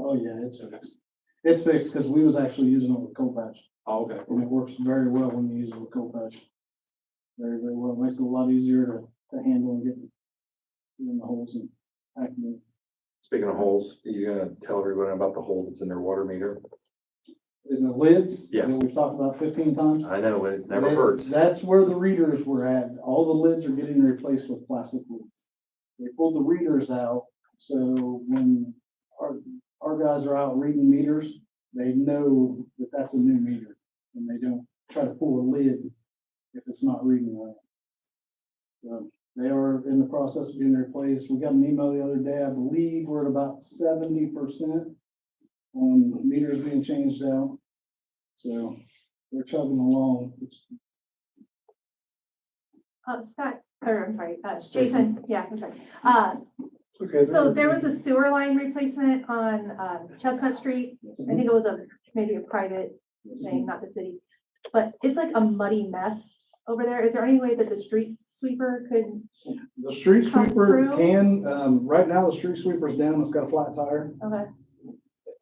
Oh, yeah, it's fixed. It's fixed because we was actually using it with co-patch Oh, okay. and it works very well when you use it with co-patch. Very, very well. Makes it a lot easier to, to handle and get in the holes and acting. Speaking of holes, are you gonna tell everyone about the hole that's in their water meter? In the lids? Yes. That we've talked about fifteen times? I know, it That- That's where the readers were at. All the lids are getting replaced with plastic lids. They pulled the readers out, so when our, our guys are out reading meters, they know that that's a new meter. And they don't try to pull a lid if it's not reading right. So they are in the process of being replaced. We got an email the other day, I believe we're at about seventy percent on meters being changed out. So they're chugging along. It's- Um, Scott, or I'm sorry, uh, Jason. Jason, yeah, I'm sorry. Uh, Okay. so there was a sewer line replacement on, um, Chestnut Street. I think it was a, maybe a private thing, not the city. But it's like a muddy mess over there. Is there any way that the street sweeper could, The street come sweeper through? can, um, right now the street sweeper's down, it's got a flat tire. okay,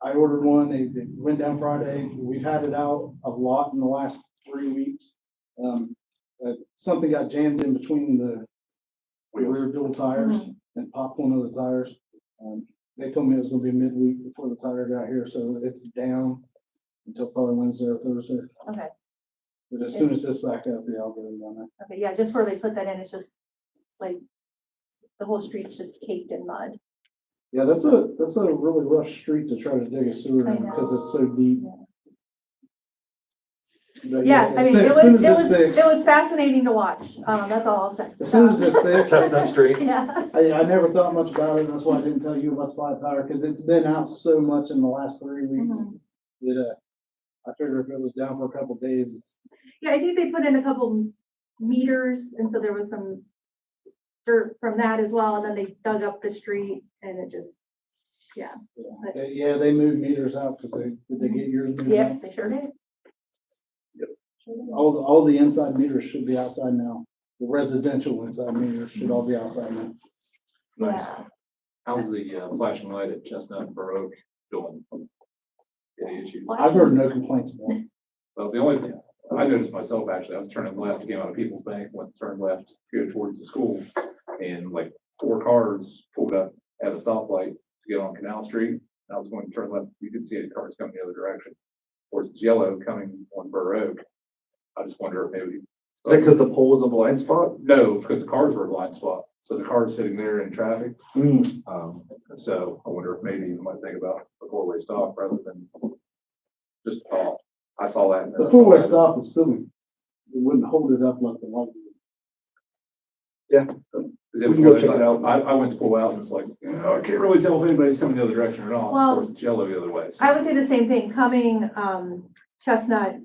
I ordered one, they, they went down Friday, we've had it out a lot in the last three weeks. Um, uh, something got jammed in between the rear dual tires Mm-hmm. and popped one of the tires. Um, they told me it was gonna be midweek before the tire got here, so it's down until probably Wednesday or Thursday. okay, But as soon as this back up, yeah, I'll get it down there. okay, yeah, just where they put that in, it's just like the whole street's just caked in mud. Yeah, that's a, that's a really rough street to try to dig a sewer I in know. because it's so deep. But Yeah, I as mean, soon- it as was, soon it as it's was, fixed- it was fascinating to watch. Um, that's all I'll say. As soon as it's fixed, Chestnut Street. Yeah, I, I never thought much about it, that's why I didn't tell you about the flat tire, because it's been out so much in the last three weeks. Mhm. That, uh, I figured if it was down for a couple days, it's- yeah, I think they put in a couple m- meters and so there was some dirt from that as well. And then they dug up the street and it just, yeah, They- yeah, they moved meters out, because they, did they get yours moved yeah, out? they sure did. Sure did. All, the- all the inside meters should be outside now, the residential inside meters should all be outside now. Yeah, How's the uh, flashing light at Chestnut and Baroque doing? Any issues? I've heard no complaints about it. Well, the only, I noticed myself, actually, I was turning left, came out of People's Bank, went, turned left, to go towards the school. And like four cars pulled up at a stoplight to get on Canal Street. I was going to turn left, you could see the cars coming the other direction. Of course, it's yellow coming on Burr Oak. I just wonder if maybe. Is that because the pole was a blind spot? No, because the cars were a blind spot. So the car's sitting there in traffic. Hmm. Um, so I wonder if maybe you might think about a four-way stop rather than just, uh, I saw that. and then I The saw four-way that. stop would still, be- it wouldn't hold it up like the light. Cause it was We can go one of those, check I it out. I, I went to pull out and it's like, you know, I can't really tell if anybody's coming the other direction or not. Well, Of course, it's yellow the other way. so- I would say the same thing, coming, um, Chestnut.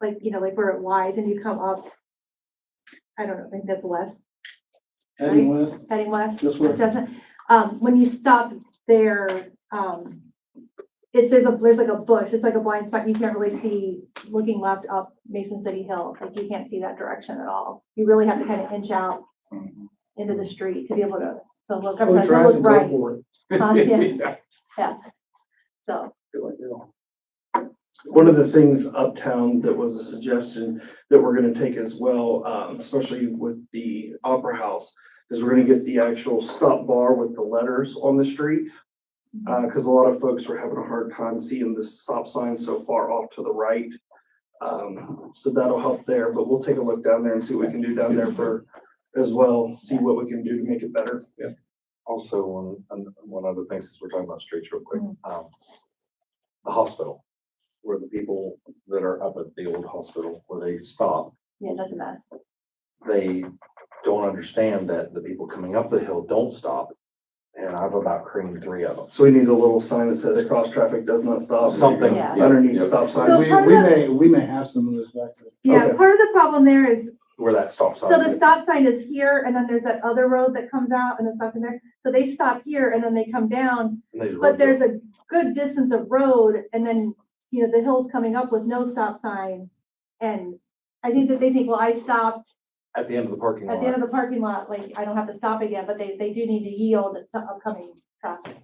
Like, you know, like where it lies and you come up. I don't know, I think that's west, Heading west, heading west. this way. Jessica, um, when you stop there, um, it's, there's a, there's like a bush, it's like a blind spot, you can't really see looking left up Mason City Hill, like you can't see that direction at all. You really have to kind of inch out Mhm. into the street to be able to, to look, I'm Mm-hmm. sorry, to Oh, tries to look go right, for it. Huh? Yeah. Yeah, so. feel like, you know, One of the things uptown that was a suggestion that we're gonna take as well, um, especially with the Opera House, is we're gonna get the actual stop bar with the letters on the street. Uh, cause a lot of folks were having a hard time seeing the stop sign so far off to the right. Um, so that'll help there, but we'll take a look down there and see what we can do down there for, as well, see what we can do to make it better. Also, one, and one other thing, since we're talking about streets real quick, Mhm. um, the hospital, where the people that are up at the old hospital, where they stop, Yeah, that's a mess. they don't understand that the people coming up the hill don't stop. And I've about creamed three of them. So we need a little sign that says cross traffic does not stop. Something. Yeah. yeah, Underneath yeah, stop sign. So We, part of we the- may, we may have some of those back there. Yeah, Okay. part of the problem there is Where that stop sign. So the is. stop sign is here, and then there's that other road that comes out, and the stop sign there. So they stop here, and then they come down, And they just but roll there's a good distance of road, and then, you know, the hill's coming up with no stop sign. And I think that they think, well, I stopped At the end of the parking at the end lot. of the parking lot, like, I don't have to stop again, but they, they do need to yield to upcoming traffic.